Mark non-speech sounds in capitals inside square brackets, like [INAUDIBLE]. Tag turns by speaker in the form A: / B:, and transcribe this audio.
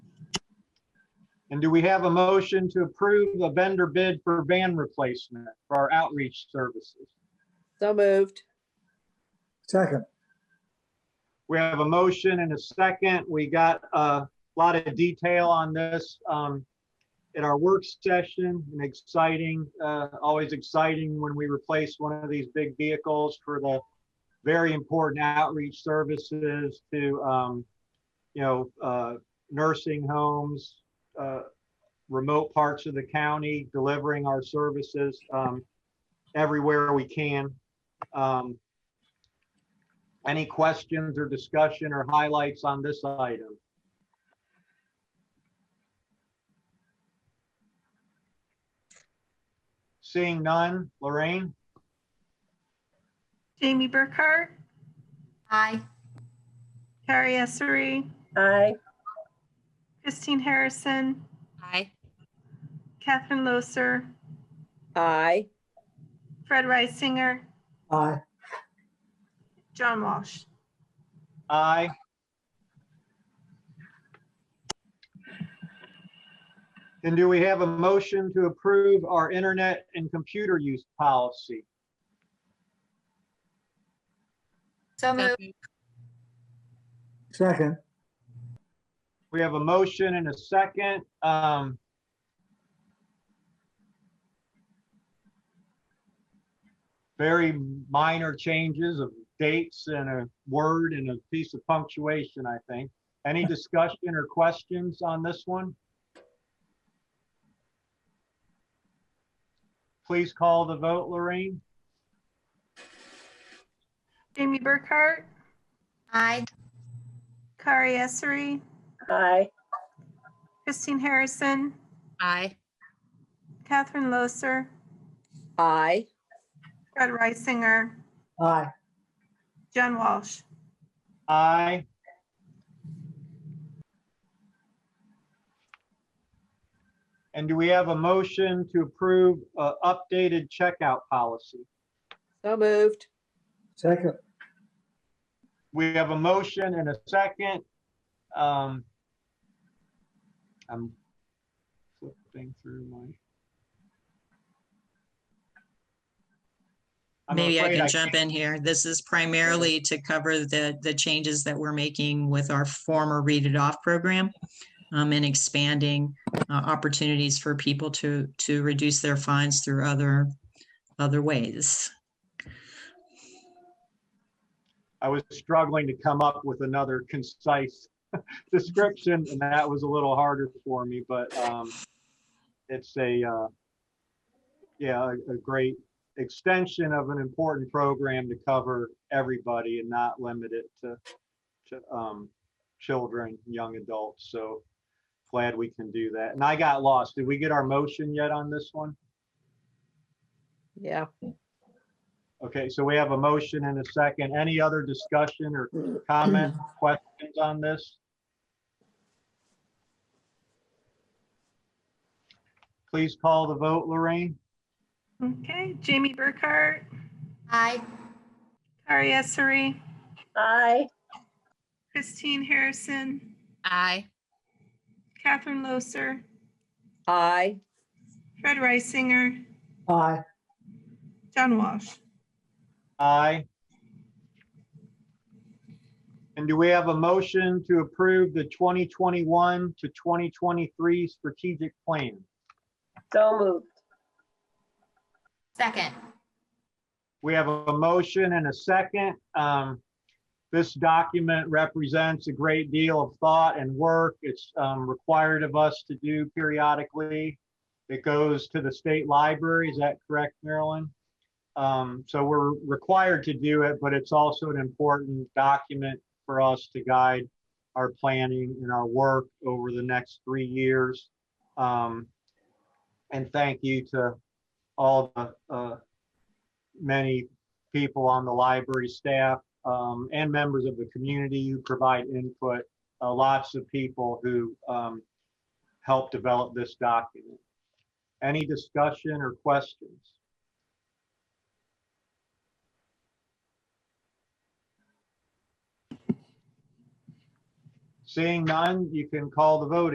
A: And do we have a motion to approve the vendor bid for van replacement for our outreach services?
B: So moved.
C: Second,
A: We have a motion and a second. We got a lot of detail on this um, at our work session. An exciting, uh, always exciting when we replace one of these big vehicles for the very important outreach services to, um, you know, uh, nursing homes, uh, remote parts of the county, delivering our services um, everywhere we can. Um, any questions or discussion or highlights on this item? Seeing none, Lorraine,
D: Jamie Burkhart,
E: Aye.
D: Carrie Essery,
B: Aye.
D: Christine Harrison,
E: Aye.
D: Catherine Loser,
B: Aye.
D: Fred Reisinger,
C: aye.
D: John Walsh.
A: aye. And do we have a motion to approve our internet and computer use policy?
E: So moved.
C: Second,
A: We have a motion and a second. Um, Very minor changes of dates and a word and a piece of punctuation, I think. Any discussion or questions on this one? Please call the vote, Lorraine.
D: Jamie Burkhart,
E: Aye.
D: Kari Essery,
B: Aye.
D: Christine Harrison,
E: Aye.
D: Catherine Loser,
B: Aye.
D: Fred Reisinger,
C: aye.
D: John Walsh.
A: Aye. And do we have a motion to approve uh, updated checkout policy?
B: So moved.
C: Second,
A: We have a motion and a second. Um, I'm flipping through my. I'm
F: Maybe I
A: afraid
F: can jump
A: can't-
F: in here. This is primarily to cover the, the changes that we're making with our former Read It Off program um, and expanding uh, opportunities for people to, to reduce their fines through other, other ways.
A: I was struggling to come up with another concise [LAUGHS] description, and that was a little harder for me, but um, it's a, uh, yeah, a- a great extension of an important program to cover everybody and not limit it to, to um, children, young adults, so glad we can do that. And I got lost. Did we get our motion yet on this one?
B: Yeah.
A: Okay, so we have a motion and a second. Any other discussion or comment, questions on this? Please call the vote, Lorraine.
D: Okay, Jamie Burkhart,
E: Aye.
D: Kari Essery,
B: Aye.
D: Christine Harrison,
E: Aye.
D: Catherine Loser,
B: Aye.
D: Fred Reisinger,
C: aye.
D: John Walsh.
A: Aye. And do we have a motion to approve the 2021 to 2023 strategic plan?
B: So moved.
E: Second.
A: We have a motion and a second. Um, This document represents a great deal of thought and work. It's um, required of us to do periodically. It goes to the state library, is that correct, Marilyn? Um, So we're required to do it, but it's also an important document for us to guide our planning and our work over the next three years. Um, And thank you to all the uh, many people on the library staff um, and members of the community who provide input, uh, lots of people who um, help develop this document. Any discussion or questions? Seeing none, you can call the vote